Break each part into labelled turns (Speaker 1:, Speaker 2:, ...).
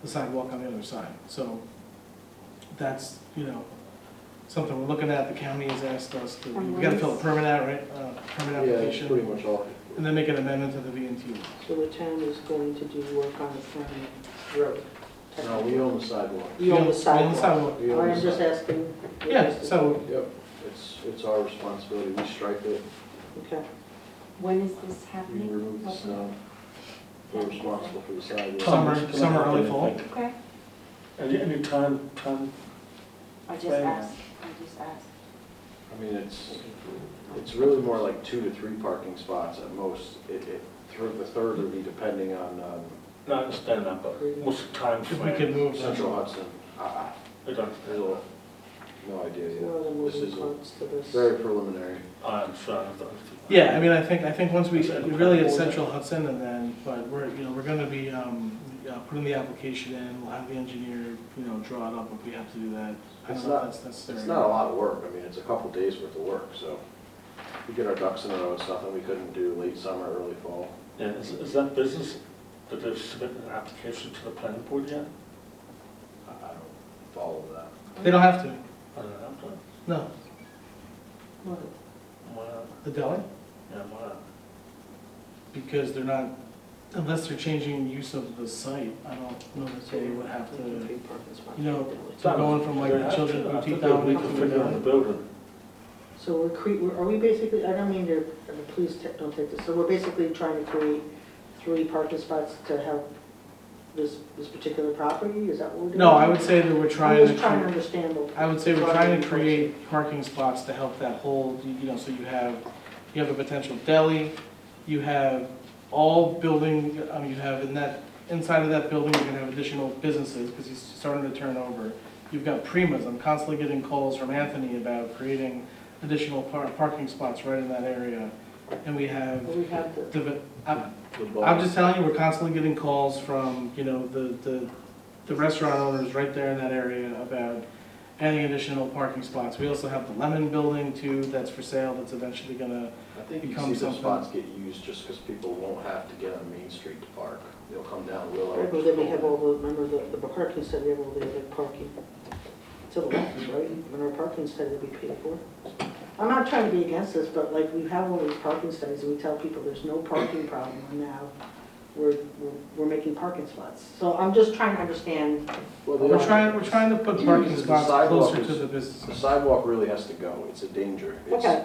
Speaker 1: the sidewalk on the other side. So that's, you know, something we're looking at, the county has asked us to, we gotta fill a permit out, right? Uh, Permit
Speaker 2: Yeah, it's pretty
Speaker 1: application,
Speaker 2: much all.
Speaker 1: and then make an amendment to the VNT.
Speaker 3: So the town is going to do work on the permanent road?
Speaker 2: No, we own the sidewalk.
Speaker 3: You own the
Speaker 1: We own the
Speaker 3: sidewalk? Oh,
Speaker 1: sidewalk.
Speaker 2: We own the
Speaker 3: I'm just
Speaker 2: sidewalk.
Speaker 3: asking.
Speaker 1: Yeah, so
Speaker 2: Yep, it's, it's our responsibility, we stripe it,
Speaker 3: Okay,
Speaker 4: When is this
Speaker 2: we
Speaker 4: happening?
Speaker 2: remove the snow, we're responsible for the sidewalk.
Speaker 1: summer, summer, early fall.
Speaker 4: Okay,
Speaker 5: Any, any time, time,
Speaker 4: I just
Speaker 5: Plan.
Speaker 4: asked, I just asked.
Speaker 2: I mean, it's, it's really more like two to three parking spots at most. It, it, through the third would be depending on, um,
Speaker 5: not understand that, but what's the time
Speaker 1: If we
Speaker 5: frame?
Speaker 1: could move that.
Speaker 2: Central Hudson. I,
Speaker 5: I don't,
Speaker 2: I, there's a, no idea
Speaker 3: there's
Speaker 2: yet.
Speaker 3: no other
Speaker 2: This
Speaker 3: moving
Speaker 2: is a
Speaker 3: parts to this.
Speaker 2: very preliminary.
Speaker 5: I'm sorry, I don't.
Speaker 1: Yeah, I mean, I think, I think once we, really it's Central Hudson and then, but we're, you know, we're gonna be, um, uh, putting the application in, we'll have the engineer, you know, draw it up if we have to do that. I
Speaker 2: It's
Speaker 1: don't know if
Speaker 2: not-
Speaker 1: that's necessary.
Speaker 2: It's not a lot of work, I mean, it's a couple days worth of work, so we get our ducks in a row, it's nothing we couldn't do late summer, early fall.
Speaker 5: Yeah, is, is that business, that they've submitted an application to the planning board yet?
Speaker 2: I I don't follow that.
Speaker 1: They don't have to,
Speaker 5: I don't know,
Speaker 1: no.
Speaker 5: why not?
Speaker 1: The deli?
Speaker 5: Yeah, why not?
Speaker 1: Because they're not, unless they're changing use of the site, I don't know that they would have to.
Speaker 3: Three parking spots.
Speaker 1: you know, So going from like
Speaker 5: They
Speaker 1: the
Speaker 5: have to,
Speaker 1: children
Speaker 5: I
Speaker 1: boutique
Speaker 5: think
Speaker 1: down
Speaker 5: they
Speaker 1: to
Speaker 5: need to figure out the
Speaker 1: the.
Speaker 5: building.
Speaker 3: So we're cre, we're- are we basically, I don't mean to, I mean, please ta- don't take this, so we're basically trying to create three parking spots to help this, this particular property, is that what we're doing?
Speaker 1: No, I would say that we're
Speaker 3: I'm
Speaker 1: trying to,
Speaker 3: just trying to
Speaker 1: cre-
Speaker 3: understand what.
Speaker 1: I would say we're trying to create parking spots to help that whole, you you know, so you have, you have a potential deli, you have all building, um, you have in that, inside of that building, you're gonna have additional businesses, because he's starting to turn over. You've got Primas, I'm constantly getting calls from Anthony about creating additional par- parking spots right in that area. And we have,
Speaker 3: We have the,
Speaker 1: deve- I'm-
Speaker 2: The ball-
Speaker 1: I'm just telling you, we're constantly getting calls from, you know, the, the, the restaurant owners right there in that area about adding additional parking spots. We also have the Lemon Building too, that's for sale, that's eventually gonna,
Speaker 2: I think you see
Speaker 1: becomes
Speaker 2: the
Speaker 1: something-
Speaker 2: spots get used just because people won't have to get on Main Street to park. They'll come down Willow.
Speaker 3: right, but then we have all the, remember the, the parking study, we have all the other parking to the left, right? And our parking study will be paid for. I'm not trying to be against this, but like, we have all these parking studies, and we tell people there's no parking problem, and now we're, we're- we're making parking spots. So I'm just trying to understand,
Speaker 2: Well, they
Speaker 1: we're
Speaker 2: don't-
Speaker 1: trying, we're trying to put parking spots closer to the
Speaker 2: The
Speaker 1: businesses.
Speaker 2: sidewalk really has to go, it's a danger. It's
Speaker 3: Okay.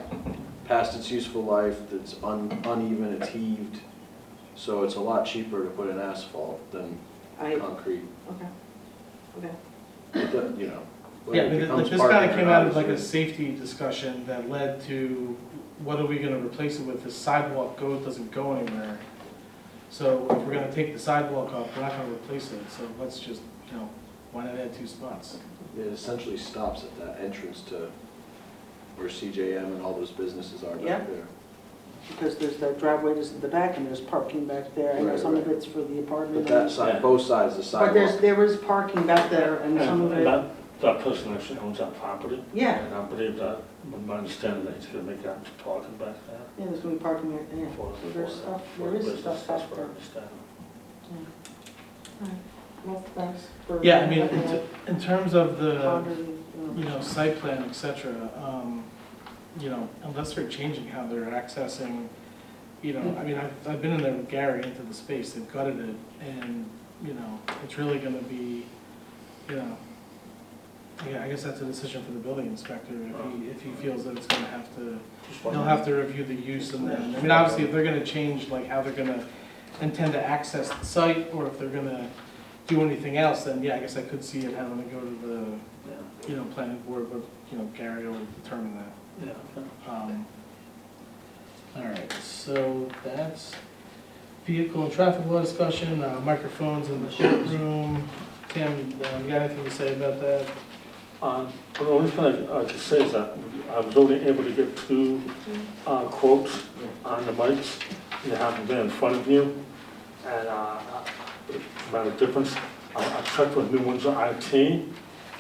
Speaker 2: Past its useful life, it's un- uneven, it's heaved, so it's a lot cheaper to put in asphalt than
Speaker 3: I, okay,
Speaker 2: concrete.
Speaker 3: okay.
Speaker 2: It doesn't, you know.
Speaker 1: Yeah,
Speaker 2: whether
Speaker 1: I
Speaker 2: it
Speaker 1: mean,
Speaker 2: becomes
Speaker 1: like, this
Speaker 2: parking
Speaker 1: kinda
Speaker 2: or
Speaker 1: came
Speaker 2: not
Speaker 1: out of
Speaker 2: is
Speaker 1: like a
Speaker 2: really-
Speaker 1: safety discussion that led to, what are we gonna replace it with? The sidewalk goes, doesn't go anywhere. So if we're gonna take the sidewalk off, we're not gonna replace it, so let's just, you know, why not add two spots?
Speaker 2: It essentially stops at that entrance to where CJM and all those businesses are
Speaker 3: Yeah.
Speaker 2: back there.
Speaker 3: Because there's the driveway just in the back, and there's parking back there, and
Speaker 2: Right,
Speaker 3: some of
Speaker 2: right.
Speaker 3: it's for the apartment.
Speaker 2: But that
Speaker 3: and-
Speaker 5: Yeah.
Speaker 2: side, both sides of the
Speaker 3: But there's,
Speaker 2: sidewalk.
Speaker 3: there is parking back there, and some of
Speaker 5: And
Speaker 3: it,
Speaker 5: that, that person actually owns that property,
Speaker 3: yeah.
Speaker 5: and I believe that, with my understanding, that he's gonna make that to parking back there.
Speaker 3: Yeah, there's gonna be parking there, yeah,
Speaker 5: for-
Speaker 3: so there's
Speaker 5: for-
Speaker 3: stuff,
Speaker 5: for
Speaker 3: there is
Speaker 5: business,
Speaker 3: stuff
Speaker 5: that's
Speaker 3: back
Speaker 5: what I
Speaker 3: there.
Speaker 5: understand.
Speaker 3: Well, thanks for.
Speaker 1: Yeah, I mean,
Speaker 3: having
Speaker 1: in,
Speaker 3: that
Speaker 1: in terms of the,
Speaker 3: pondering,
Speaker 1: you
Speaker 3: you know.
Speaker 1: know, site plan, et cetera, um, you know, unless they're changing how they're accessing, you know, I mean, I've, I've been in there with Gary into the space, they've gutted it, and, you know, it's really gonna be, you know, yeah, I guess that's a decision for the building inspector, if he, if he feels that it's gonna have to,
Speaker 5: Just
Speaker 1: they'll
Speaker 5: wondering.
Speaker 1: have to review the use and then, I mean, obviously, if they're gonna change, like, how they're gonna intend to access the site, or if they're gonna do anything else, then, yeah, I guess I could see it having to go to
Speaker 5: Yeah.
Speaker 1: the, you know, planning board, but, you know, Gary will determine that.
Speaker 5: Yeah, okay.
Speaker 1: Um, All right, so that's vehicle and traffic law discussion, uh, microphones in the courtroom. Tim, uh, you got anything to say about that?
Speaker 5: Um, well, The only thing I I could say is that I was only able to get two uh, quotes on the mics. They haven't been in front of you, and uh, it made a difference. I I checked with New Windsor IT,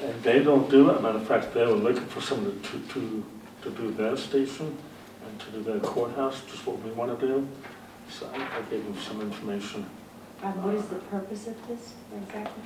Speaker 5: and they don't do it. Matter of fact, they were looking for someone to, to, to do their station and to do their courthouse, just what we want to do. So I I gave them some information
Speaker 4: Um, Uh, what is the purpose of this exactly?